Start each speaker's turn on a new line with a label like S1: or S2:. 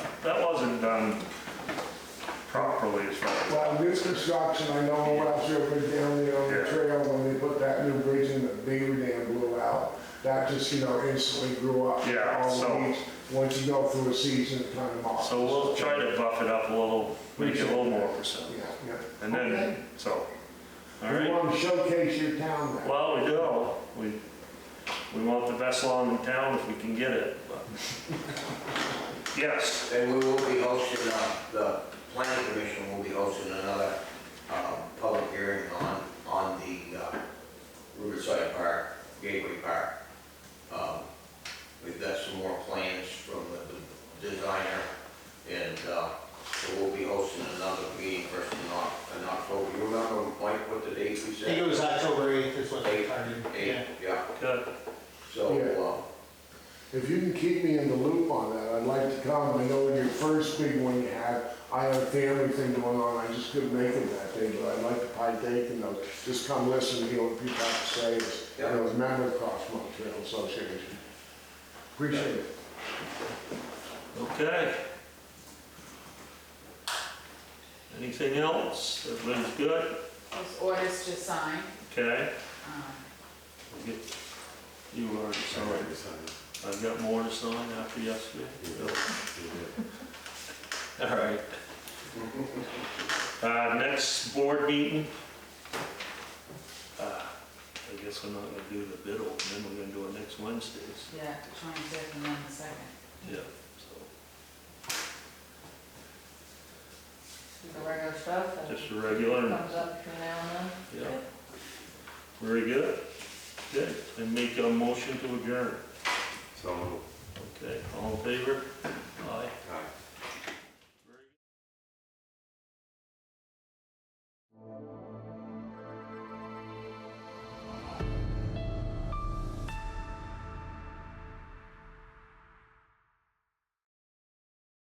S1: done properly as far as.
S2: Well, this construction, I know when I was real big down there on the
S1: Yeah.
S2: trail, when they put that new bridge in, the beaver dam blew out. That just, you know, instantly grew up.
S1: Yeah,
S2: all the
S1: so-
S2: weeds. Once you go through a season, it kind of moss.
S1: So we'll try to buff it up a little, make it a little more percent.
S2: Yeah, yeah.
S1: And then, so, all
S2: We
S1: right.
S2: want to showcase your town now.
S1: Well, we do, we, we want the best lawn in town if we can get it, but. Yes,
S3: And we will be hosting, uh, the planning commission will be hosting another uh, public hearing on, on the uh, Riverside Park, Gateway Park. Um, We've got some more plans from the the designer, and uh, so we'll be hosting another meeting first in Oc- in October. You remember, Mike, what the date we
S4: I think it
S3: said?
S4: was October 8th is what they started.
S3: Eight, yeah,
S1: good,
S3: so, uh,
S2: If you can keep me in the loop on that, I'd like to come. I know in your first big one you had, I had a family thing going on, I just couldn't make it that day, but I'd like to partake in those. Just come listen to hear what people have to say, as, you know, as a member of Cross Mountain Trail Association. Appreciate it.
S1: okay. Anything else? Everybody's good?
S5: Those orders to sign,
S1: Okay,
S5: um,
S1: we'll get- you already signed. I've got more to sign after yesterday. All right. Uh, next board meeting. Uh, I guess we're not gonna do the bid opening, we're gonna do it next Wednesdays.
S5: yeah, twenty-fifth and then the second.
S1: Yeah, so,
S6: the regular stuff and
S1: just a regular,
S6: comes up from now and then.
S1: yeah. Very good. Good, and make a motion to adjourn.
S7: So
S1: Okay, all in favor?